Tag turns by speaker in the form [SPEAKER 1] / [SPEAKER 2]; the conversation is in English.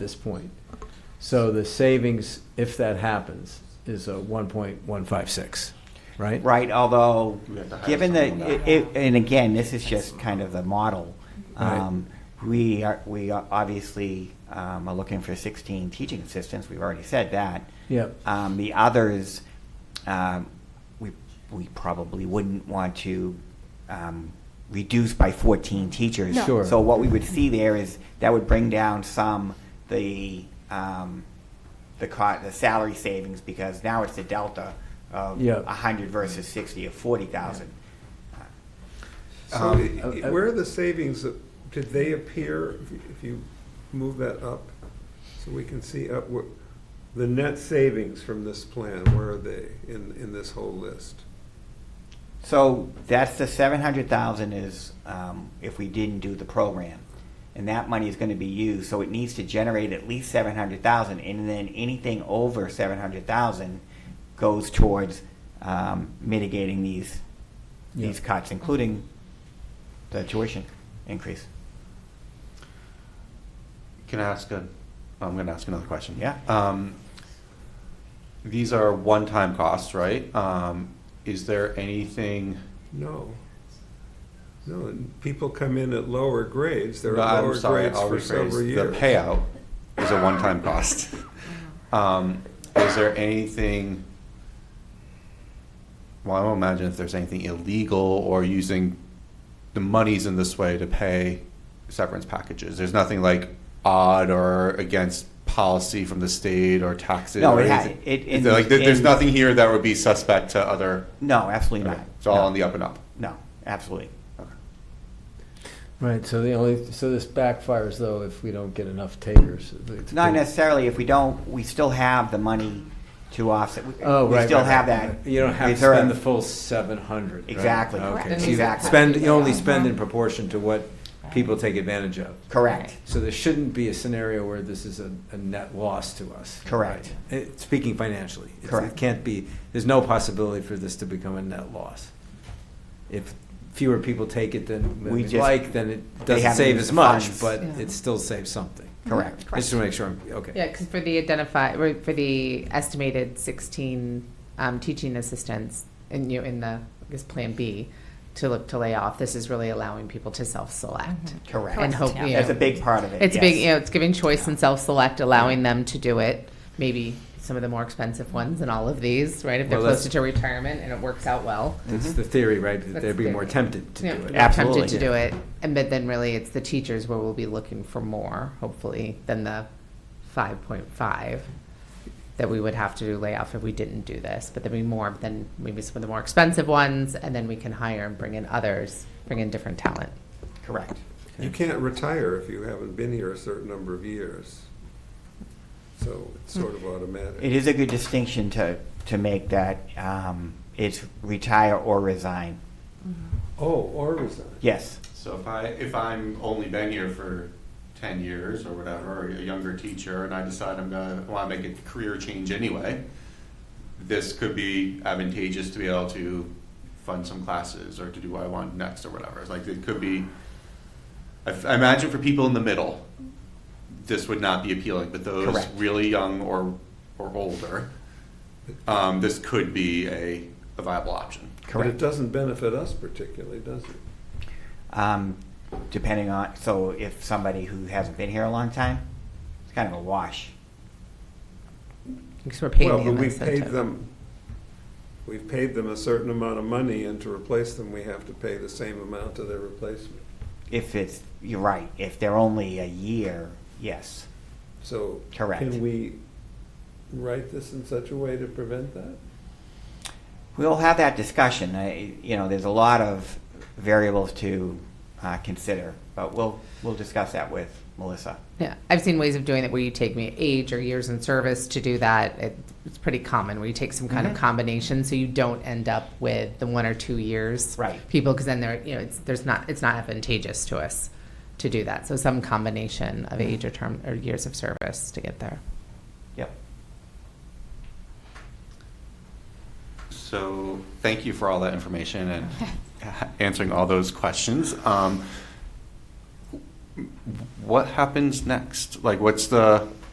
[SPEAKER 1] this point. So the savings, if that happens, is a one point one five six, right?
[SPEAKER 2] Right, although,
[SPEAKER 3] We have to hire
[SPEAKER 2] given the,
[SPEAKER 3] someone now.
[SPEAKER 2] i- i- and again, this is just kind of the model.
[SPEAKER 1] Right.
[SPEAKER 2] Um, We are, we are obviously um, are looking for 16 teaching assistants, we've already said that.
[SPEAKER 1] Yep.
[SPEAKER 2] Um, The others, um, we, we probably wouldn't want to um, reduce by 14 teachers.
[SPEAKER 1] No. Sure.
[SPEAKER 2] So what we would see there is, that would bring down some, the, um, the co- the salary savings, because now it's the delta of
[SPEAKER 1] Yeah.
[SPEAKER 2] 100 versus 60 or 40,000.
[SPEAKER 4] So
[SPEAKER 2] Um,
[SPEAKER 4] i- i-
[SPEAKER 1] uh,
[SPEAKER 4] where are the savings, uh, did they appear, if you- if you move that up, so we can see up, wh- the net savings from this plan, where are they in, in this whole list?
[SPEAKER 2] So that's the 700,000 is um, if we didn't do the program. And that money is going to be used, so it needs to generate at least 700,000. And then anything over 700,000 goes towards um, mitigating these,
[SPEAKER 1] Yeah.
[SPEAKER 2] these cuts, including the tuition increase.
[SPEAKER 3] Can I ask a, I'm gonna ask another question.
[SPEAKER 2] Yeah.
[SPEAKER 3] Um, these are one-time costs, right? Um, is there anything,
[SPEAKER 4] No. No, and people come in at lower grades, they're
[SPEAKER 3] No,
[SPEAKER 4] at
[SPEAKER 3] I'm
[SPEAKER 4] lower
[SPEAKER 3] sorry,
[SPEAKER 4] grades
[SPEAKER 3] I'll
[SPEAKER 4] for
[SPEAKER 3] rephrase,
[SPEAKER 4] several
[SPEAKER 3] the
[SPEAKER 4] years.
[SPEAKER 3] payout is a one-time cost. Um, is there anything, well, I don't imagine if there's anything illegal or using the monies in this way to pay severance packages. There's nothing like odd or against policy from the state or taxes.
[SPEAKER 2] No,
[SPEAKER 3] or
[SPEAKER 2] it ha-
[SPEAKER 3] anything.
[SPEAKER 2] it-
[SPEAKER 3] Is
[SPEAKER 2] in-
[SPEAKER 3] there, like, there- there's
[SPEAKER 2] in-
[SPEAKER 3] nothing here that would be suspect to other.
[SPEAKER 2] No, absolutely
[SPEAKER 3] Okay,
[SPEAKER 2] not.
[SPEAKER 3] It's all
[SPEAKER 2] No.
[SPEAKER 3] on the up and up.
[SPEAKER 2] No, absolutely.
[SPEAKER 3] Okay.
[SPEAKER 1] Right, so the only, so this backfires though if we don't get enough takers. It's
[SPEAKER 2] Not
[SPEAKER 1] pretty-
[SPEAKER 2] necessarily, if we don't, we still have the money to offset. We-
[SPEAKER 1] Oh, right.
[SPEAKER 2] We still
[SPEAKER 1] right,
[SPEAKER 2] have
[SPEAKER 1] right.
[SPEAKER 2] that.
[SPEAKER 1] You don't have to
[SPEAKER 2] reserve.
[SPEAKER 1] spend the full seven hundred.
[SPEAKER 2] Exactly.
[SPEAKER 1] Okay.
[SPEAKER 5] Correct.
[SPEAKER 1] So you
[SPEAKER 2] Exactly.
[SPEAKER 1] Spend, you only spend in proportion to what people take advantage of.
[SPEAKER 2] Correct.
[SPEAKER 1] So there shouldn't be a scenario where this is a, a net loss to us.
[SPEAKER 2] Correct.
[SPEAKER 1] Right. It- Speaking financially. It's- It
[SPEAKER 2] Correct.
[SPEAKER 1] can't be, there's no possibility for this to become a net loss. If fewer people take it than
[SPEAKER 2] We
[SPEAKER 1] we
[SPEAKER 2] just-
[SPEAKER 1] like, then it
[SPEAKER 2] they
[SPEAKER 1] doesn't
[SPEAKER 2] haven't
[SPEAKER 1] save
[SPEAKER 2] used
[SPEAKER 1] as
[SPEAKER 2] the
[SPEAKER 1] much,
[SPEAKER 2] funds.
[SPEAKER 1] but
[SPEAKER 5] Yeah.
[SPEAKER 1] it still saves something.
[SPEAKER 2] Correct.
[SPEAKER 1] I just want to make sure, I'm okay.
[SPEAKER 5] Yeah, because for the identify, or for the estimated 16 um, teaching assistants, and you know, in the, I guess, Plan B, to look to lay off, this is really allowing people to self-select.
[SPEAKER 2] Mm-hmm. Correct.
[SPEAKER 5] And hope,
[SPEAKER 6] Correct,
[SPEAKER 5] you
[SPEAKER 2] That's a
[SPEAKER 5] know,
[SPEAKER 2] big part of it.
[SPEAKER 5] It's a big,
[SPEAKER 2] yes.
[SPEAKER 5] you know, it's giving choice and self-select, allowing them to do it, maybe some of the more expensive ones and all of these, right? If they're
[SPEAKER 1] Well, that's-
[SPEAKER 5] closer to retirement and it works out well.
[SPEAKER 1] It's the theory, right, that
[SPEAKER 5] That's
[SPEAKER 1] they'd be
[SPEAKER 5] the
[SPEAKER 1] more
[SPEAKER 5] theory.
[SPEAKER 1] tempted to
[SPEAKER 5] you know,
[SPEAKER 1] do it.
[SPEAKER 5] we're
[SPEAKER 2] Absolutely.
[SPEAKER 5] Tempted to do it, and but then really it's the teachers where we'll be looking for more, hopefully, than the five point five that we would have to do layoff if we didn't do this, but there'd be more than maybe some of the more expensive ones, and then we can hire and bring in others, bring in different talent.
[SPEAKER 2] Correct.
[SPEAKER 4] You can't retire if you haven't been here a certain number of years. So it's sort of automatic.
[SPEAKER 2] It is a good distinction to, to make that um, it's retire or resign.
[SPEAKER 4] Oh, or resign.
[SPEAKER 2] Yes.
[SPEAKER 3] So if I, if I'm only been here for ten years or whatever, or a younger teacher, and I decide I'm gonna, wanna make a career change anyway, this could be advantageous to be able to fund some classes or to do what I want next or whatever. It's like, it could be, I f- I imagine for people in the middle, this would not be appealing, but those
[SPEAKER 2] Correct.
[SPEAKER 3] really young or, or older, um, this could be a, a viable option.
[SPEAKER 4] But it
[SPEAKER 2] Correct.
[SPEAKER 4] doesn't benefit us particularly, does it?
[SPEAKER 2] Um, depending on, so if somebody who hasn't been here a long time, it's kind of a wash.
[SPEAKER 5] Because we're paying
[SPEAKER 4] Well,
[SPEAKER 5] them
[SPEAKER 4] but we've paid
[SPEAKER 5] incentive.
[SPEAKER 4] them, we've paid them a certain amount of money, and to replace them, we have to pay the same amount to their replacement.
[SPEAKER 2] If it's, you're right, if they're only a year, yes.
[SPEAKER 4] So.
[SPEAKER 2] Correct.
[SPEAKER 4] Can we write this in such a way to prevent that?
[SPEAKER 2] We'll have that discussion. I, you know, there's a lot of variables to uh, consider, but we'll, we'll discuss that with Melissa.
[SPEAKER 5] Yeah, I've seen ways of doing it where you take me age or years in service to do that. It, it's pretty common where you take some kind
[SPEAKER 2] Mhm.
[SPEAKER 5] of combination so you don't end up with the one or two years
[SPEAKER 2] Right.
[SPEAKER 5] people because then they're you know it's there's not it's not advantageous to us to do that. So some combination of age or term or years of service to get there.
[SPEAKER 2] Yep.
[SPEAKER 3] So, thank you for all that information and answering all those questions. Um, what happens next? Like, what's the?